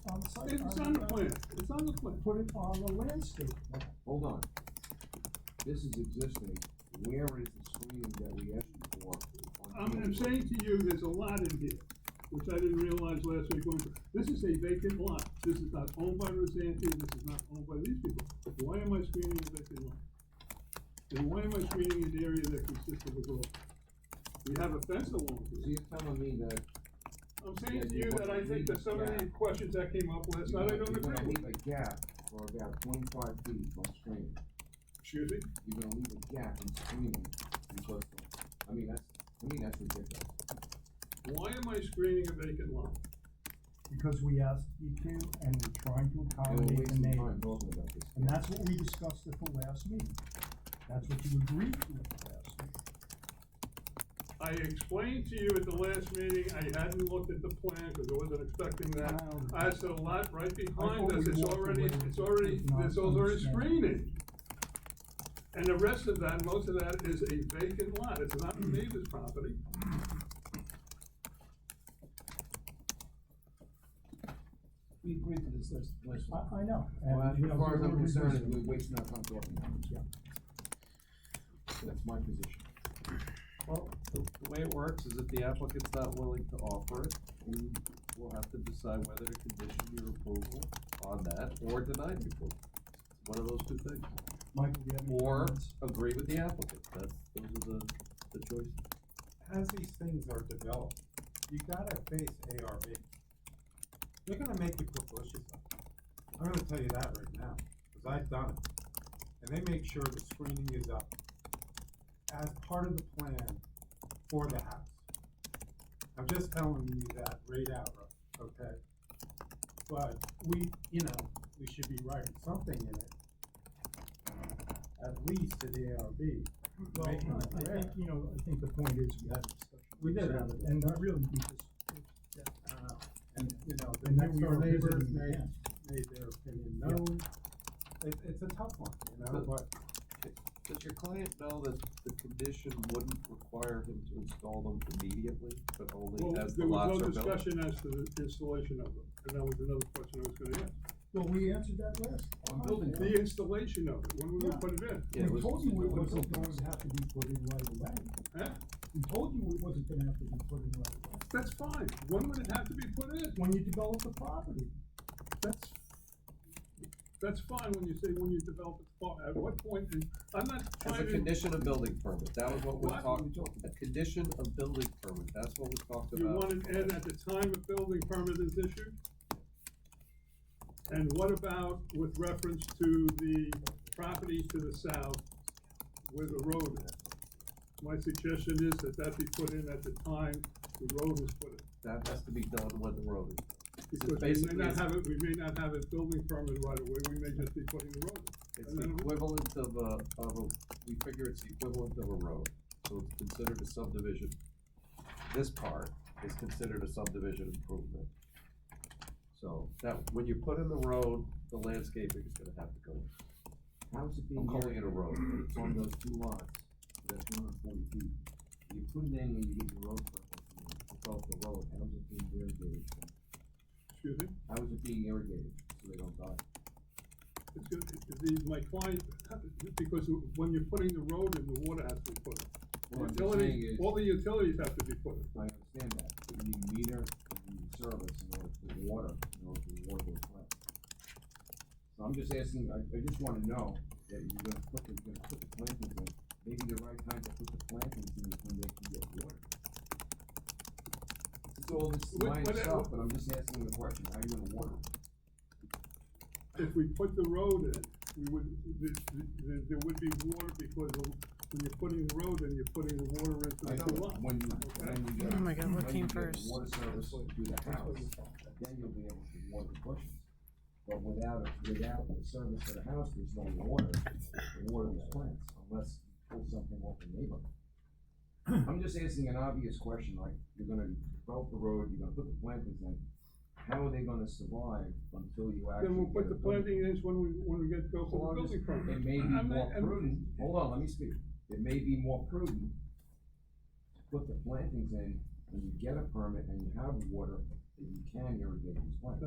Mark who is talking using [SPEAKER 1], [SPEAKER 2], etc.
[SPEAKER 1] It's on the plan, it's on the plan.
[SPEAKER 2] put it on the landscape plan.
[SPEAKER 3] Hold on. This is existing, where is the screening that we asked for? on
[SPEAKER 1] I'm, I'm
[SPEAKER 3] Kingswood?
[SPEAKER 1] saying to you, there's a lot in here, which I didn't realize last week going through. This is a vacant lot. This is not owned by Rosanti, this is not owned by these people. Why am I screening a vacant lot? And why am I screening an area that consists of a grove? We have a fence along
[SPEAKER 3] So
[SPEAKER 1] here.
[SPEAKER 3] you're telling me that.
[SPEAKER 1] I'm saying to you that I think that some of the questions that came up last night, I don't
[SPEAKER 3] You're gonna
[SPEAKER 1] agree with.
[SPEAKER 3] leave a gap for about twenty-five feet from screening.
[SPEAKER 1] Excuse me?
[SPEAKER 3] You're gonna leave a gap in screening because, of- I mean, that's, I mean, that's ridiculous.
[SPEAKER 1] Why am I screening a vacant lot?
[SPEAKER 2] Because we asked you to, and we're trying to
[SPEAKER 3] And we're
[SPEAKER 2] accommodate the
[SPEAKER 3] wasting
[SPEAKER 2] neighbor.
[SPEAKER 3] time talking about this.
[SPEAKER 2] And that's what we discussed at the last meeting. That's what you agreed to at the last meeting.
[SPEAKER 1] I explained to you at the last meeting, I hadn't looked at the plan, because I wasn't expecting that.
[SPEAKER 2] Now-
[SPEAKER 1] I said a lot right behind
[SPEAKER 2] thought
[SPEAKER 1] us,
[SPEAKER 2] we
[SPEAKER 1] it's
[SPEAKER 2] walked
[SPEAKER 1] already,
[SPEAKER 2] away
[SPEAKER 1] it's already,
[SPEAKER 2] with not
[SPEAKER 1] this is already
[SPEAKER 2] understanding.
[SPEAKER 1] screening. And the rest of that, most of that is a vacant lot, it's not
[SPEAKER 4] Hmm.
[SPEAKER 1] the neighbor's property.
[SPEAKER 5] We agreed to this last, last time.
[SPEAKER 2] I, I know. and,
[SPEAKER 3] Well,
[SPEAKER 2] you know,
[SPEAKER 3] as far as
[SPEAKER 2] we
[SPEAKER 3] I'm
[SPEAKER 2] were
[SPEAKER 3] concerned,
[SPEAKER 2] reducing-
[SPEAKER 3] we're wasting our time talking about it.
[SPEAKER 2] Yeah.
[SPEAKER 3] That's my position.
[SPEAKER 4] Well, the, the way it works is if the applicant's not willing to offer it, we will have to decide whether to condition your approval on that or deny the approval. It's One of those two things,
[SPEAKER 2] Michael, you have any
[SPEAKER 4] or
[SPEAKER 2] comments?
[SPEAKER 4] agree with the applicant, that's, those are the, the choices.
[SPEAKER 6] as these things are developed, you gotta face ARB. They're gonna make you put bushes up. I'm gonna tell you that right now, cause I've done it. And they make sure the screening is up as part of the plan for the house. I'm just telling you that right out, okay? But we, you know, we should be writing something in it, at least to the ARB,
[SPEAKER 2] Well,
[SPEAKER 6] making them
[SPEAKER 2] I
[SPEAKER 6] aware.
[SPEAKER 2] think, you know, I think the point is, we had a discussion.
[SPEAKER 6] We did have
[SPEAKER 2] it. And that really, we just,
[SPEAKER 6] I don't know. And, you know, the
[SPEAKER 2] And then
[SPEAKER 6] next
[SPEAKER 2] we
[SPEAKER 6] door
[SPEAKER 2] were
[SPEAKER 6] neighbors
[SPEAKER 2] visiting
[SPEAKER 6] made,
[SPEAKER 2] again.
[SPEAKER 6] made their opinion known. It, it's a tough one, you know,
[SPEAKER 4] But-
[SPEAKER 6] but
[SPEAKER 4] Does your client know that the condition wouldn't require him to install them immediately, but only
[SPEAKER 1] Well,
[SPEAKER 4] as the
[SPEAKER 1] there was
[SPEAKER 4] lots
[SPEAKER 1] no
[SPEAKER 4] are built?
[SPEAKER 1] discussion as to the installation of them, and that was another question I was gonna ask.
[SPEAKER 2] well, we answered that last. time.
[SPEAKER 1] The installation of it, when we would
[SPEAKER 2] Yeah.
[SPEAKER 1] put it in,
[SPEAKER 2] We
[SPEAKER 4] Yeah, it was-
[SPEAKER 2] told you it wasn't going to have to be put in right away.
[SPEAKER 1] huh?
[SPEAKER 2] We told you it wasn't gonna have to be put in right away.
[SPEAKER 1] That's fine, when would it have to be put in?
[SPEAKER 2] When you develop the property,
[SPEAKER 1] That's, that's fine when you say when you develop a spot, at what point, in I'm not
[SPEAKER 4] As a
[SPEAKER 1] trying to,
[SPEAKER 4] condition of building permit, that was what we
[SPEAKER 1] What?
[SPEAKER 4] talked, a condition of building permit, that's what we talked
[SPEAKER 1] you
[SPEAKER 4] about.
[SPEAKER 1] want it in at the time a building permit is issued? And what about with reference to the property to the south where the road is? My suggestion is that that be put in at the time the road is put in,
[SPEAKER 4] That has to be done when the road is.
[SPEAKER 1] because we
[SPEAKER 4] basically-
[SPEAKER 1] may not have it, we may not have a building permit right away, we may just be putting the road in.
[SPEAKER 4] It's the equivalent of a, of a, we figure it's the equivalent of a road, so it's considered a subdivision. This part is considered a subdivision improvement. So that, when you put in the road, the landscaping is gonna have to go. in.
[SPEAKER 3] How's it
[SPEAKER 4] I'm
[SPEAKER 3] being
[SPEAKER 4] calling
[SPEAKER 3] carried
[SPEAKER 4] it a road.
[SPEAKER 3] over? It's on those two lots, that's one hundred forty feet. You put it in when you get the road permit, you develop the road, how's it being irrigated?
[SPEAKER 1] Excuse me?
[SPEAKER 3] How is it being irrigated, so they don't die?
[SPEAKER 1] It's gonna, the, my client, because when you're putting the road in, the water has to be put
[SPEAKER 3] What
[SPEAKER 1] in.
[SPEAKER 3] I'm saying
[SPEAKER 1] Utilities,
[SPEAKER 3] is-
[SPEAKER 1] all the utilities have to be put in.
[SPEAKER 3] I understand that, but you need meter, you need service in order for water, in order for water to flow. So I'm just asking, I, I just wanna know that you're gonna put, the- you're gonna put the plantings in, maybe the right time to put the plantings in is when they can get water. It's all this
[SPEAKER 1] What-
[SPEAKER 3] line
[SPEAKER 1] what-
[SPEAKER 3] stuff, but I'm just asking the question, how are you gonna water? it?
[SPEAKER 1] If we put the road in, we would, the, the, there would be water because of- when you're putting the road in, you're putting the water into
[SPEAKER 3] I
[SPEAKER 1] the
[SPEAKER 3] know,
[SPEAKER 1] lot.
[SPEAKER 3] when you, when you get.
[SPEAKER 7] Oh my God, what
[SPEAKER 3] when you get
[SPEAKER 7] came
[SPEAKER 3] the
[SPEAKER 7] first?
[SPEAKER 3] Water service to the house, then you'll be able to water the bushes. But without, it- without the service to the house, there's no water, to water the plants, unless you pull something off the neighbor. I'm just asking an obvious question, like, you're gonna develop the road, you're gonna put the plantings in, how are they gonna survive until you actually?
[SPEAKER 1] Then we'll put
[SPEAKER 3] get
[SPEAKER 1] the
[SPEAKER 3] a building?
[SPEAKER 1] planting in when we, when we get, go for the building permit.
[SPEAKER 3] It may be
[SPEAKER 1] I'm not-
[SPEAKER 3] more
[SPEAKER 1] I'm-
[SPEAKER 3] prudent, hold on, let me speak, it may be more prudent to put the plantings in, when you get a permit and you have water, that you can irrigate these plants.